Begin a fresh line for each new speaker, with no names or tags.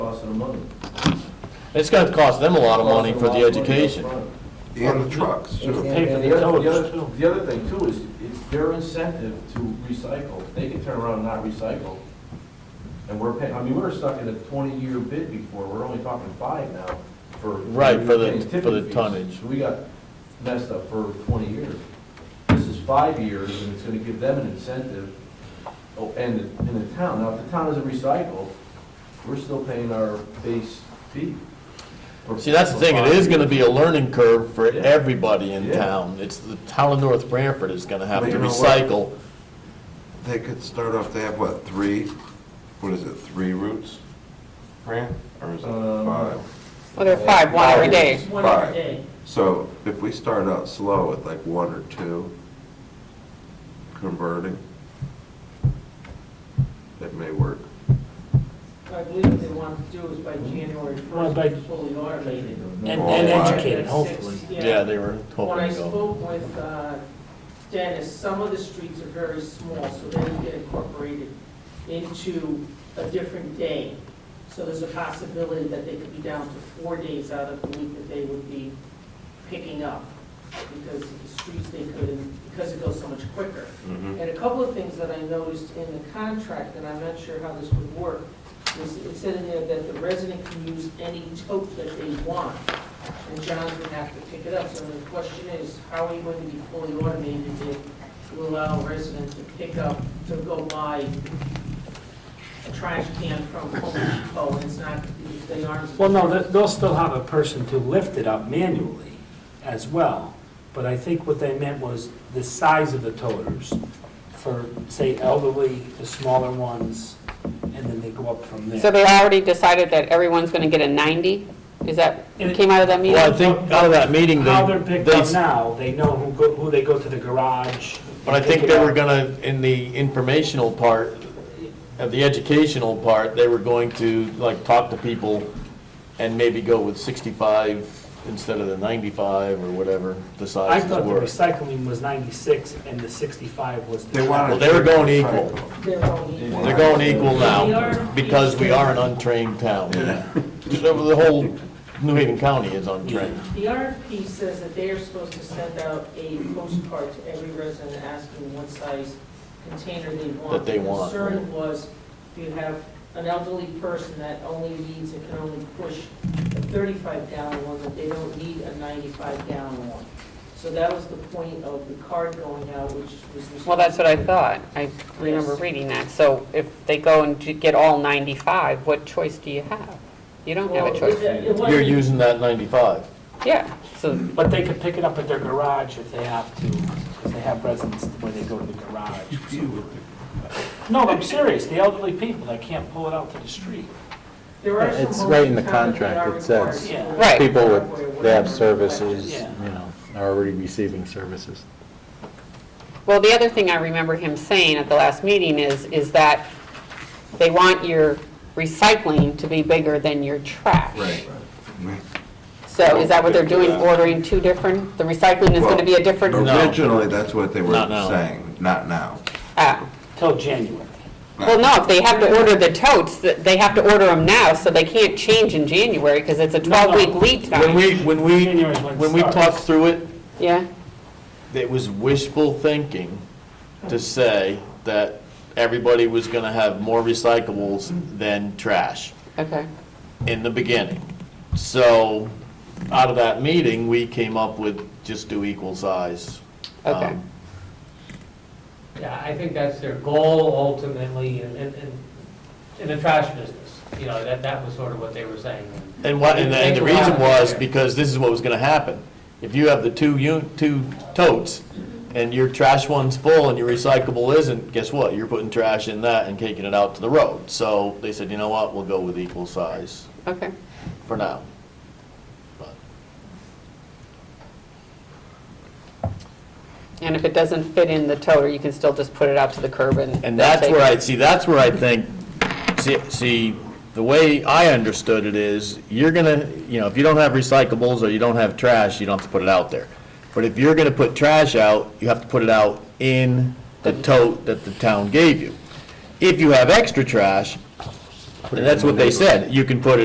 of money.
It's gonna cost them a lot of money for the
Costs a lot of money
education.
upfront.
and the trucks.
And-
too.
pay for
and
the
other-
towers,
other-
too.
The other thing too is, it's their incentive to recycle. They can turn around and not recycle. And we're paying, I mean, we were stuck in a twenty-year bid before, we're only talking five now for.
Right, for the-
paying tipping
for the
fees.
tonnage.
We got messed up for twenty years. This is five years and it's gonna give them an incentive. Oh, and, the- and the town, now if the town doesn't recycle, we're still paying our base fee. for-
See, that's the
for
thing, it
five
is gonna
years.
be a learning curve for
Yeah.
everybody in
Yeah.
town. It's the town of North Branford is gonna have
But
to
you know what?
recycle.
They could start off, they have what, three, what is it, three routes, Fran? Or is it
Um,
five?
Well, there are five, one every day.
One every
Five.
day.
So if we start out slow with like one or two converting, that may work.
I believe what they want to do is by January
Well,
first,
by-
it's fully automated.
And,
Oh,
and
I-
educated, hopefully.
Yeah, they were
When
hoping
I
to go.
spoke with uh, Dennis, some of the streets are very small, so they can get incorporated into a different day. So there's a possibility that they could be down to four days out of the week that they would be picking up because of the streets they could, and because it goes so much quicker.
Mm-hmm.
And a couple of things that I noticed in the contract, and I'm not sure how this would work, was it said in there that the resident can use any tote that they want, and John's gonna have to pick it up. So the question is, how are you going to be fully automated to- to allow residents to pick up, to go buy a trash can from Home Depot, and it's not, they aren't.
Well, no, they- they'll still have a person to lift it up manually as well, but I think what they meant was the size of the toters for, say, elderly, the smaller ones, and then they go up from there.
So they already decided that everyone's going to get a 90? Is that, it came out of that meeting?
Well, I think out of that meeting,
How they're
they,
picked
they,
up
s-
now, they know who go, who they go to the garage.
but I
pick
think
it
they
up.
were gonna, in the informational part, of the educational part, they were going to, like, talk to people and maybe go with sixty-five instead of the ninety-five or whatever the
I
sizes
thought the
were.
recycling was 96 and the 65 was. the
They wanted.
Well, they were going
to
equal.
recycle.
They're only.
They're going equal now, because we are an untrained town. So The whole New Haven County is untrained.
The RFP says that they are supposed to send out a postcard to every resident asking what size container they want.
That they want,
The concern was if you have an elderly person that only needs, and can only push a 35 gallon one, that they don't need a 95 gallon one. So that was the point of the card going out, which was.
Well, that's what I thought. I remember reading that. So if they go and ju- get all 95, what choice do you have? You don't have a choice.
You're using that ninety-five.
Yeah, so,
But they could pick it up at their garage if they have to, because they have residents where they go to the garage. No, I'm serious, the elderly people, they can't pull it out to the street.
It's right in the contract. It says
Right.
people with, they have services,
Yeah.
you know, are already receiving services.
well, the other thing I remember him saying at the last meeting is, is that they want your recycling to be bigger than your trash.
Right.
So is that what they're doing, ordering two different, the recycling is going to be a different?
No.
Originally, that's what they were
Not now.
saying, not now.
Oh.
Till January.
Well, no, if they have to order the totes, that they have to order them now, so they can't change in January, because it's a
No, no.
12-week lead
When
time.
we, when we,
January's when it
when we
starts.
talked through it,
Yeah,
it was wishful thinking to say that everybody was gonna have more recyclables than trash.
okay.
in the beginning. So, out of that meeting, we came up with just do equal size.
Okay.
Um,
Yeah, I think that's their goal ultimately in, in, in- in the trash business. You know, that, that was sort of what they were saying.
And what, and the- and the
Take a
reason
while.
was because this is what was gonna happen. If you have the two un, two totes, and your trash one's full and your recyclable isn't, guess what? You're putting trash in that and taking it out to the road. So, they said, you know what, we'll go with equal size
Okay.
for now. But-
And if it doesn't fit in the toter, you can still just put it out to the curb and...
And that's
they'll
where I,
take it.
see, that's where I think, see- see, the way I understood it is, you're gonna, you know, if you don't have recyclables or you don't have trash, you don't have to put it out there. But if you're gonna put trash out, you have to put it out in the tote that the town gave you. If you have extra trash, and that's what they said, you can put it.